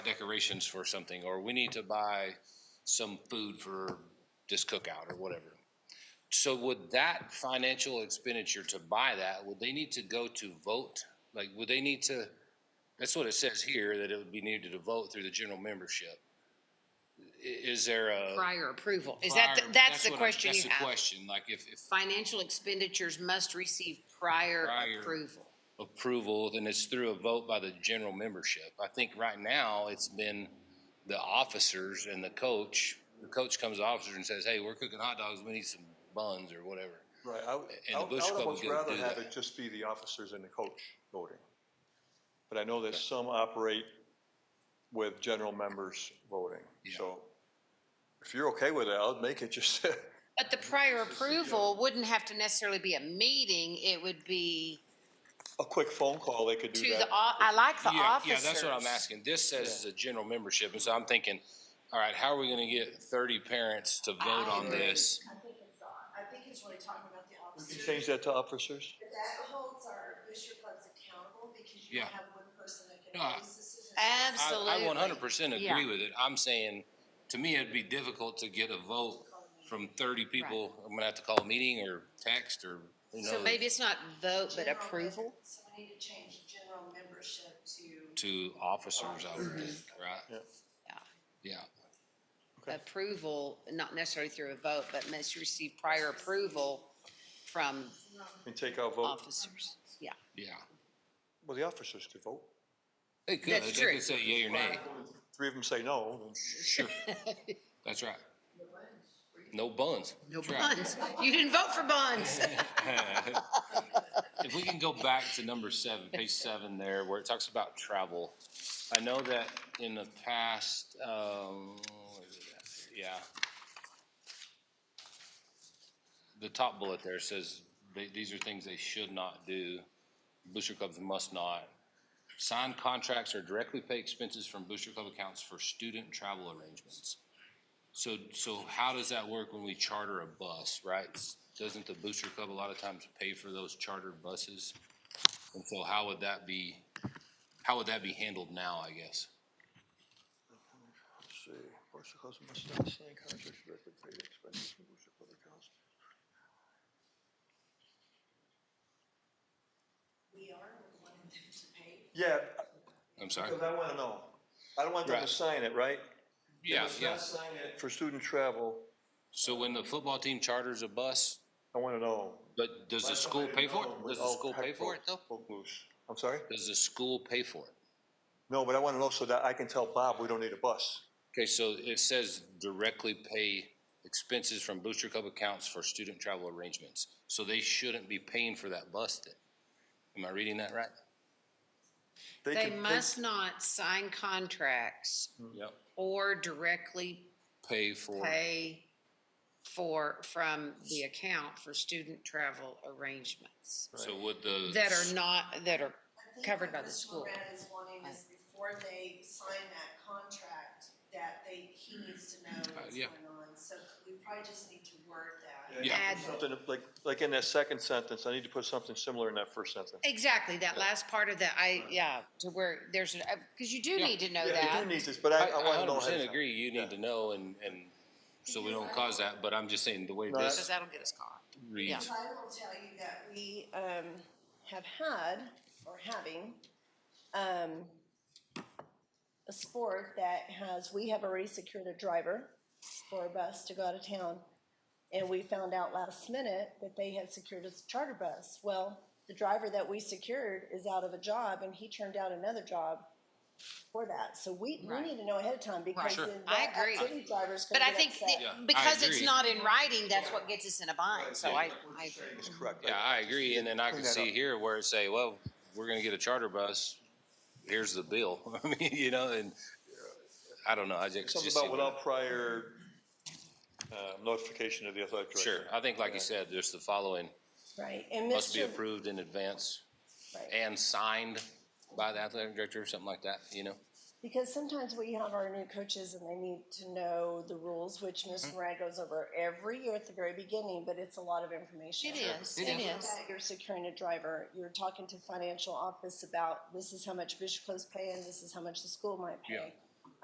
decorations for something, or we need to buy some food for this cookout or whatever. So would that financial expenditure to buy that, would they need to go to vote? Like, would they need to, that's what it says here, that it would be needed to vote through the general membership. I- Is there a? prior approval. Is that, the- prior- that's the what I'm- question you That's the have? question, like if, if Financial expenditures must receive prior Prior. approval. approval, then it's through a vote by the general membership. I think right now, it's been the officers and the coach. The coach comes to the officer and says, hey, we're cooking hot dogs, we need some buns or whatever. Right, I, would- the I would- I Bush would Club almost would rather do have that. it just be the officers and the coach voting. But I know that some operate with general members voting, so if you're okay with it, I'll make it just, But the prior approval wouldn't have to necessarily be a meeting. It would be a quick phone call, they could to do the, that. au- I like the Yeah, officers. yeah, that's what I'm asking. This says it's a general membership, and so I'm thinking, all right, how are we gonna get thirty parents to vote on this? I think it's, on- I think it's really talking about the We officers. can change that to officers? But that holds our booster clubs accountable because you don't Yeah. have one person that can No, I- make these decisions. I, I Absolutely. one hundred percent agree Yeah. with it. I'm saying, to me, it'd be difficult to get a vote from thirty people. I'm gonna have to call a meeting or text or who So knows, maybe it's not vote, but General mem- approval? So we need to change general membership to. to officers, I would think, right? Yeah. Yeah, Approval, not necessarily through a vote, but must receive prior approval from And take out vote, officers. Yeah. yeah. well, the officers could vote. They could, That's they true. could say yea or nay. Three of them say no, then Sure. That's right. No buns. No That's right. bonds. You didn't vote for bonds. If we can go back to number seven, page seven there, where it talks about travel. I know that in the past, um, where is it at? yeah. The top bullet there says, they, these are things they should not do. Booster clubs must not. Sign contracts or directly pay expenses from booster club accounts for student travel arrangements. So, so how does that work when we charter a bus, right? Doesn't the booster club a lot of times pay for those chartered buses? And so how would that be, how would that be handled now, I guess? Let's see, Board of Selectmen must not sign contracts directly paid expenses from Board of Selectmen accounts. We are wanting them to pay. Yeah, I'm sorry? because I wanna know. I don't want them to Right. sign it, right? They Yeah, must not yeah. sign it For student travel, So when the football team charters a bus, I wanna know. Oh, but does the school pay for it? Does the school pay for it though? I'm sorry? Does the school pay for it? No, but I wanna know so that I can tell Bob we don't need a bus. Okay, so it says directly pay expenses from booster club accounts for student travel arrangements. So they shouldn't be paying for that bus then? Am I reading that right? They can- must not sign contracts Yep. or directly Pay for, pay for, from the account for student travel arrangements so would the. that are not, that are I think covered by what the Mr. school. Moran is wanting is before they sign that contract, that they, he needs to know what's yeah. going on. So we probably just need to word that. Yeah. Add, Something like, like in that second sentence, I need to put something similar in that first sentence. exactly, that last part of that, I, yeah, to where there's, because you do Yeah. need to know Yeah, that. we do need this, but I, I, I I wanna hundred know. ahead of percent time. agree, you need to know and, and so we don't cause that, but I'm just saying the way No, Because this that'll get us caught. reads. I will tell you that we um, have had, or having, um, a sport that has, we have already secured a driver for a bus to go out of town. And we found out last minute that they had secured a charter bus. Well, the driver that we secured is out of a job and he turned down another job for that. So we, we Right. need to know ahead of time because Sure. then I that agree. activity driver's But gonna I get think upset. Yeah, I that, because it's agree. not in writing, that's what gets us in a bind, so I, I agree. It's correct. Yeah, I agree, and then I can Clean that see up. here where it say, well, we're gonna get a charter bus, here's the bill, I mean, you know, and uh, I don't know, I just. Something just see about where- without prior, uh, notification of the athletic director. Sure, I think like you said, there's the following, Right, and must be Mr. approved in advance Right. and signed by the athletic director or something like that, you know? Because sometimes we have our new coaches and they need to know the rules, which Mm-hmm. Ms. Moran goes over every year at the very beginning, but it's a lot of information. It is, And it with is. that, You're securing a driver, you're talking to financial office about this is how much Bishop Club's paying, this is how much the school might Yeah. pay.